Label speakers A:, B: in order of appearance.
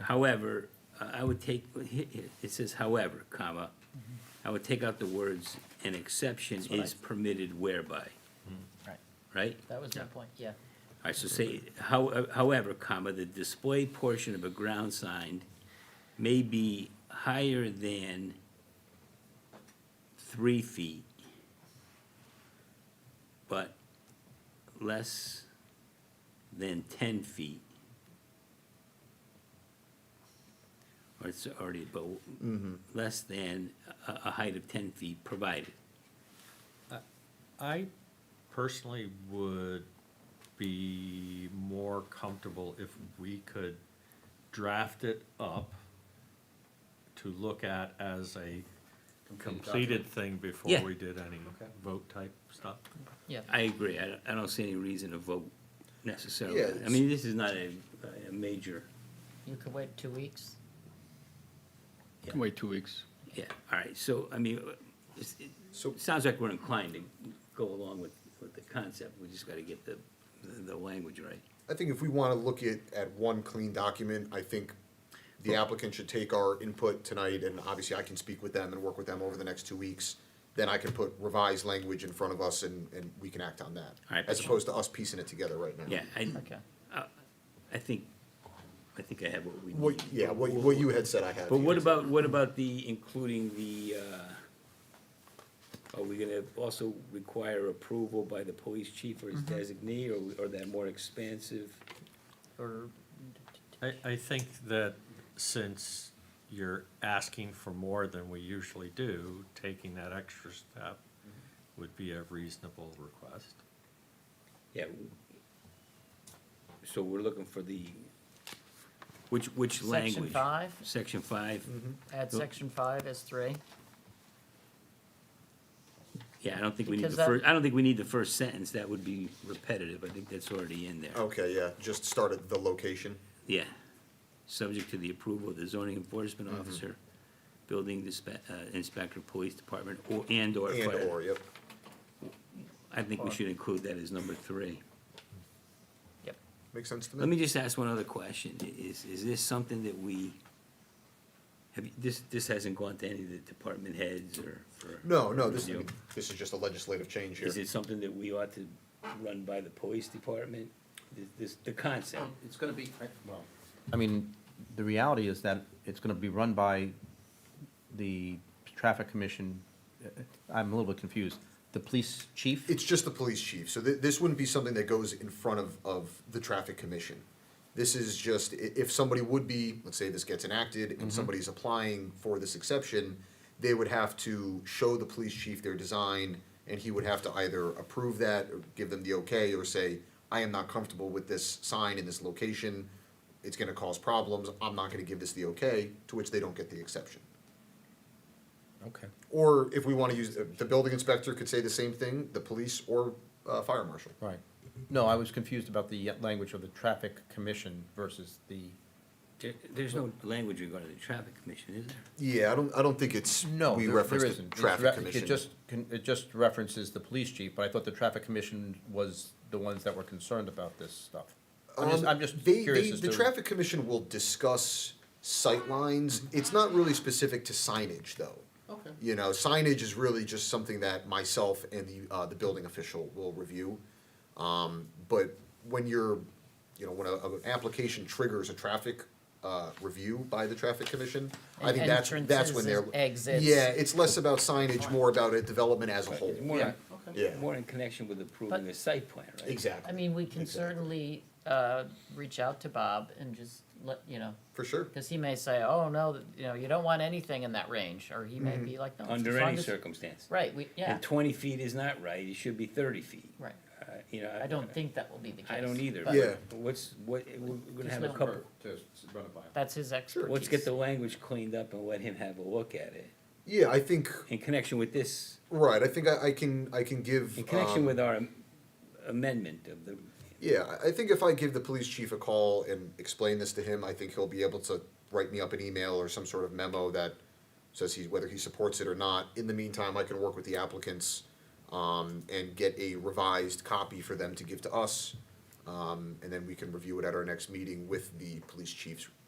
A: However, uh, I I would take, it says however, comma, I would take out the words, an exception
B: Mm-hmm. what I- Mm-hmm.
A: is permitted whereby,
B: Right,
A: right?
B: that was my point, yeah.
A: All right, so say, how- however, comma, the display portion of a ground sign may be higher than three feet, but less than ten feet. Or it's already, but less than a, a height of ten feet provided.
C: I personally would be more comfortable if we could draft it up to look at as a completed thing before
A: Yeah.
C: we did any vote type stuff.
B: Yeah,
A: I agree, I don't, I don't see any reason to vote necessarily.
D: Yeah,
A: I
D: it's-
A: mean, this is not a, a major,
B: you could wait two weeks.
A: Yeah.
E: Wait two weeks.
A: yeah, all right, so, I mean, it's- it,
D: So-
A: it sounds like we're inclined to go along with, with the concept, we just gotta get the, the, the language right.
D: I think if we want to look at, at one clean document, I think the applicant should take our input tonight, and obviously I can speak with them and work with them over the next two weeks. Then I can put revised language in front of us and, and we can act on that.
A: All right,
D: As
A: but-
D: opposed to us piecing it together right now.
A: Yeah, I,
B: Okay.
A: I think, I think I have what we need.
D: What, yeah, what, what you had said I had.
A: But what about, what about the, including the, uh, are we gonna also require approval by the police chief or his designee, or, or that more expansive?
B: Or,
C: I, I think that since you're asking for more than we usually do, taking that extra step would be a reasonable request.
A: Yeah. So we're looking for the, which, which
B: Section
A: language?
B: five? Mm-hmm.
A: Section five?
B: add
A: Nope.
B: section five as three.
A: Yeah, I don't think we need
B: Because
A: the first,
B: that-
A: I don't think we need the first sentence, that would be repetitive, I think that's already in
B: Oh.
A: there.
D: Okay, yeah, just start at the location.
A: Yeah. Subject to the approval of the zoning
B: Mm-hmm.
A: enforcement officer, building dispa- uh, inspector, police department, or, and or
D: And
A: fire.
D: or, yep.
A: I think we
B: Or.
A: should include that as number three.
B: Yep.
D: Makes sense to me?
A: Let me just ask one other question. I- Is, is this something that we, have, you- this, this hasn't gone to any of the department heads or for?
D: No, no, this,
A: review?
D: this is just a legislative change here.
A: Is it something that we ought to run by the police department? This- This, the concept?
F: It's gonna be, well. I mean, the reality is that it's gonna be run by the traffic commission. uh, I'm a little bit confused. The police chief?
D: It's just the police chief, so th- this wouldn't be something that goes in front of, of the traffic commission. This is just, i- if somebody would be, let's say this gets enacted and somebody's applying for this exception, they would have to show the police chief their design and he would have to either approve that or give them the okay or say, I am not comfortable with this sign in this location. It's gonna cause problems, I'm not gonna give this the okay, to which they don't get the exception.
F: Okay.
D: Or if we wanna use, the building inspector could say the same thing, the police or, uh, fire marshal.
F: Right. No, I was confused about the language of the traffic commission versus the,
A: There, there's no language regarding the traffic commission, is there?
D: Yeah, I don't, I don't think it's,
F: no,
D: we
F: there-
D: reference
F: there
D: the
F: isn't. It's re-
D: traffic commission.
F: It just, con- it just references the police chief, but I thought the traffic commission was the ones that were concerned about this stuff. I'm just,
D: Um,
F: I'm just
D: they-
F: curious
D: they-
F: as
D: The
F: to-
D: traffic commission will discuss sightlines, it's not really specific to signage though.
F: Mm-hmm. Okay.
D: You know, signage is really just something that myself and the, uh, the building official will review. Um, but when you're, you know, when a, an application triggers a traffic, uh, review by the traffic commission, I think that's, that's when they're.
B: Entrances, exits.
D: Yeah, it's less about signage, more about a development as a whole.
A: It's more,
D: Yeah.
A: more in connection with approving the site plan, right?
D: Exactly.
B: I mean, we can certainly, uh, reach out to Bob and just let, you know,
D: For sure.
B: cause he may say, oh, no, th- you know, you don't want anything in that range, or he may be like, no. it's as
A: Under
B: long
A: any
B: as-
A: circumstance.
B: Right, we, yeah,
A: And twenty feet is not right, it should be thirty feet.
B: right.
A: Uh, You know.
B: I don't think that will be the case.
A: I don't either.
B: but
D: Yeah.
A: but What's, what, we're gonna
B: Just
A: have a
B: let
A: couple,
B: That's his expertise.
A: let's get the language cleaned up and let him have a look at it.
D: Yeah, I think,
A: In connection with this,
D: right, I think I, I can, I can give.
A: in connection
D: um,
A: with our amendment of the,
D: Yeah, I I think if I give the police chief a call and explain this to him, I think he'll be able to write me up an email or some sort of memo that says he, whether he supports it or not. In the meantime, I can work with the applicants, um, and get a revised copy for them to give to us. Um, and then we can review it at our next meeting with the police chief's